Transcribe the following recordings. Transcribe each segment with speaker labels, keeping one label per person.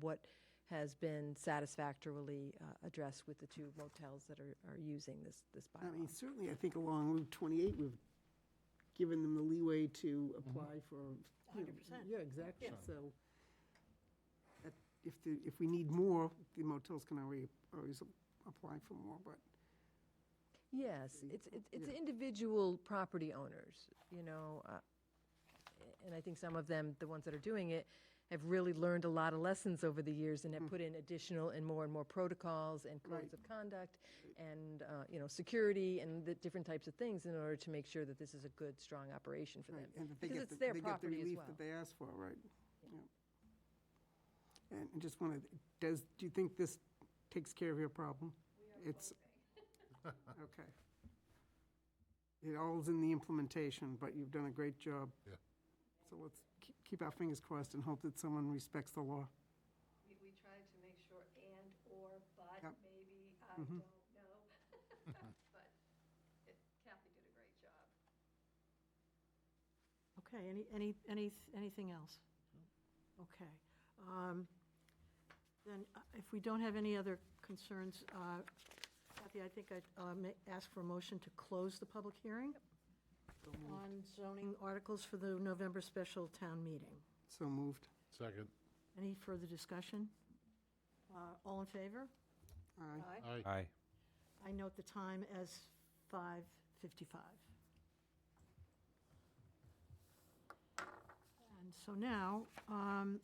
Speaker 1: what has been satisfactorily uh, addressed with the two motels that are, are using this, this
Speaker 2: I mean,
Speaker 1: bylaw.
Speaker 2: certainly, I think along Route 28, we've given them the leeway to apply for. you know,
Speaker 3: 100%.
Speaker 2: Yeah, exactly, so that- if, the- if we need more, the motels can already, always apply for more, but
Speaker 1: Yes, it's, it's- it's individual property owners, you know, uh, and I think some of them, the ones that are doing it, have really learned a lot of lessons over the years and have put in additional and more and more protocols and codes
Speaker 2: Hmm. Right.
Speaker 1: of conduct and, uh, you know, security and the different types of things in order to make sure that this is a good, strong operation for them.
Speaker 2: Right, and that they
Speaker 1: Because
Speaker 2: get
Speaker 1: it's
Speaker 2: the-
Speaker 1: their
Speaker 2: they get the
Speaker 1: property as
Speaker 2: relief
Speaker 1: well.
Speaker 2: that they asked for, right? Yeah. And and just wanted, does, do you think this takes care of your problem? It's Okay. It all's in the implementation, but you've done a great job.
Speaker 4: Yeah.
Speaker 2: So let's keep- keep our fingers crossed and hope that someone respects the law.
Speaker 3: We, we tried to make sure and/or, but
Speaker 2: Yep.
Speaker 3: maybe, I don't know. But it- Kathy did a great job.
Speaker 5: Okay, any, any, any, anything else? Okay. um, Then uh, if we don't have any other concerns, uh, Kathy, I think I'd uh, ma- ask for a motion to close the public hearing on zoning articles for the November special town meeting.
Speaker 2: So moved.
Speaker 4: Second.
Speaker 5: Any further discussion? Uh, All in favor?
Speaker 2: Aye.
Speaker 4: Aye.
Speaker 6: Aye.
Speaker 5: I note the time as 5:55. And so now, um,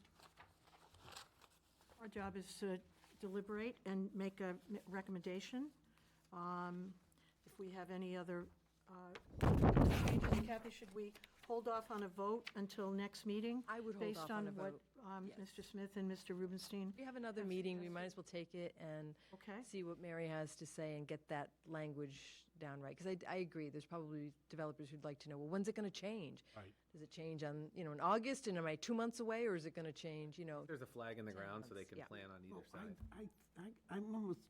Speaker 5: our job is to deliberate and make a m- recommendation. Um, If we have any other uh, changes, Kathy, should we hold off on a vote until next meeting?
Speaker 1: I would hold off on a vote.
Speaker 5: Based on what um,
Speaker 1: yes.
Speaker 5: Mr. Smith and Mr. Rubenstein,
Speaker 1: We have another meeting, we might as well take it and
Speaker 5: okay?
Speaker 1: see what Mary has to say and get that language down right. Because I, I agree, there's probably developers who'd like to know, well, when's it going to change?
Speaker 4: Right.
Speaker 1: Does it change on, you know, in August, and am I two months away, or is it going to change, you know?
Speaker 7: There's a flag in the
Speaker 1: Ten
Speaker 7: ground so they
Speaker 1: months,
Speaker 7: can
Speaker 1: yeah.
Speaker 7: plan on
Speaker 2: Oh,
Speaker 7: either
Speaker 2: I-
Speaker 7: side.
Speaker 2: I, I, I'm almost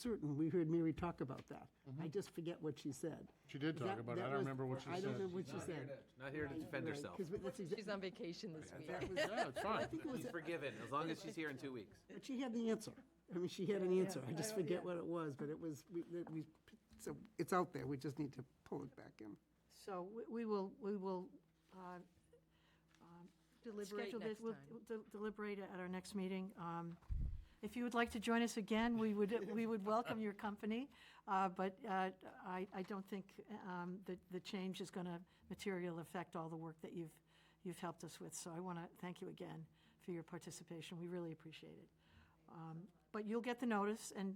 Speaker 2: certain we heard Mary talk about that. I just forget what she said.
Speaker 4: She did talk
Speaker 2: That-
Speaker 4: about it.
Speaker 2: that
Speaker 4: I don't
Speaker 2: was-
Speaker 4: remember what she
Speaker 2: I
Speaker 4: said.
Speaker 2: don't remember what she said.
Speaker 7: Not here to defend herself.
Speaker 2: Because that's exactly.
Speaker 1: She's on vacation this week.
Speaker 2: That was,
Speaker 4: Yeah, it's
Speaker 2: I
Speaker 4: fine.
Speaker 2: think it was,
Speaker 7: She's forgiven, as long as she's here in two weeks.
Speaker 2: but she had the answer. I mean, she had an answer. I just forget what it was, but it was, we, that we, so it's out there. We just need to pull it back in.
Speaker 5: So we- we will, we will uh, um, deliberate,
Speaker 1: Skate next
Speaker 5: we'll
Speaker 1: time.
Speaker 5: de- deliberate at our next meeting. Um, If you would like to join us again, we would, we would welcome your company, uh, but uh, I, I don't think um, that the change is going to material affect all the work that you've, you've helped us with. So I want to thank you again for your participation. We really appreciate it. Um, But you'll get the notice, and,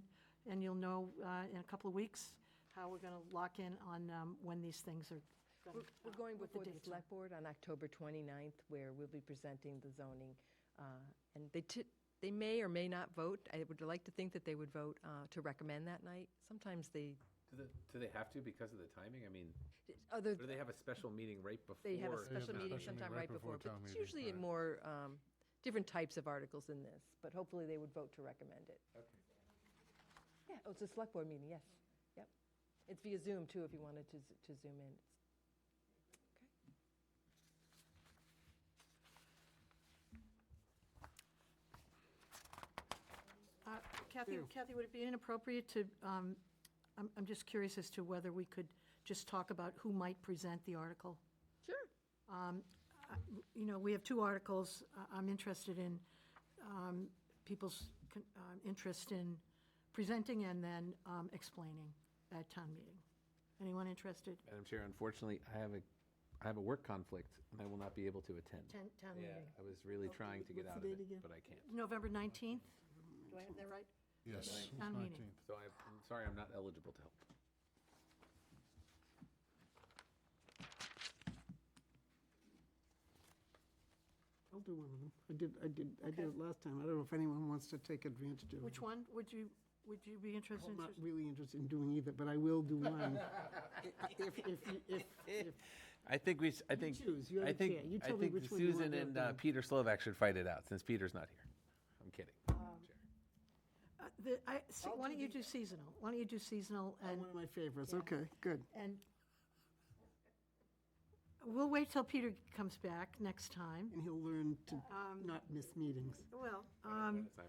Speaker 5: and you'll know uh, in a couple of weeks how we're going to lock in on um, when these things are
Speaker 1: We're
Speaker 5: going
Speaker 1: we're going
Speaker 5: what the
Speaker 1: before the
Speaker 5: dates are.
Speaker 1: select board on October 29th, where we'll be presenting the zoning. uh, And they, ti- they may or may not vote. I would like to think that they would vote uh, to recommend that night. Sometimes they,
Speaker 7: Do the- do they have to because of the timing? I mean,
Speaker 1: other,
Speaker 7: or do they have a special meeting right before?
Speaker 1: They have a
Speaker 4: They have
Speaker 1: special
Speaker 4: a
Speaker 1: meeting
Speaker 4: special
Speaker 1: sometime
Speaker 4: meeting
Speaker 1: right before, but
Speaker 4: town
Speaker 1: it's
Speaker 4: meeting,
Speaker 1: usually in
Speaker 4: right.
Speaker 1: more, um, different types of articles than this, but hopefully they would vote to recommend it. Yeah, oh, it's a select board meeting, yes, yep. It's via Zoom too, if you wanted to, z- to Zoom in.
Speaker 5: Uh, Kathy,
Speaker 2: Ew.
Speaker 5: Kathy, would it be inappropriate to, um, I'm I'm just curious as to whether we could just talk about who might present the article?
Speaker 1: Sure.
Speaker 5: Um, I- You know, we have two articles. I- I'm interested in um, people's con- um, interest in presenting and then um, explaining at town meeting. Anyone interested?
Speaker 7: Madam Chair, unfortunately, I have a, I have a work conflict and I will not be able to attend.
Speaker 5: Town town
Speaker 7: Yeah,
Speaker 5: meeting.
Speaker 7: I was really trying to get
Speaker 2: what's
Speaker 7: out of
Speaker 2: the
Speaker 7: it,
Speaker 2: date again?
Speaker 7: but I can't.
Speaker 5: November 19th? Do I have that right?
Speaker 4: Yes.
Speaker 5: Town meeting.
Speaker 4: 19th.
Speaker 7: So I- I'm sorry, I'm not eligible to help.
Speaker 2: I'll do one of them. I did, I did, I did it last time. I don't know if anyone wants to take advantage of it.
Speaker 5: Which one? Would you, would you be interested
Speaker 2: I'm
Speaker 5: in?
Speaker 2: not really interested in doing either, but I will do one. If, if, you- if, if,
Speaker 7: I think we, sh- I think,
Speaker 2: choose. You're
Speaker 7: I
Speaker 2: the
Speaker 7: think,
Speaker 2: chair. You
Speaker 7: I
Speaker 2: tell me
Speaker 7: think
Speaker 2: which one you want
Speaker 7: Susan
Speaker 2: to have
Speaker 7: and uh,
Speaker 2: done.
Speaker 7: Peter Slovak should fight it out since Peter's not here. I'm kidding. Madam Chair.
Speaker 5: Uh, the- I- see, Why don't you do seasonal? Why don't you do seasonal
Speaker 2: oh,
Speaker 5: and,
Speaker 2: one of my favorites. Okay, good.
Speaker 5: and We'll wait till Peter comes back next time.
Speaker 2: Um, and he'll learn to not miss meetings.
Speaker 5: Well,
Speaker 7: One
Speaker 5: um,
Speaker 7: at a time.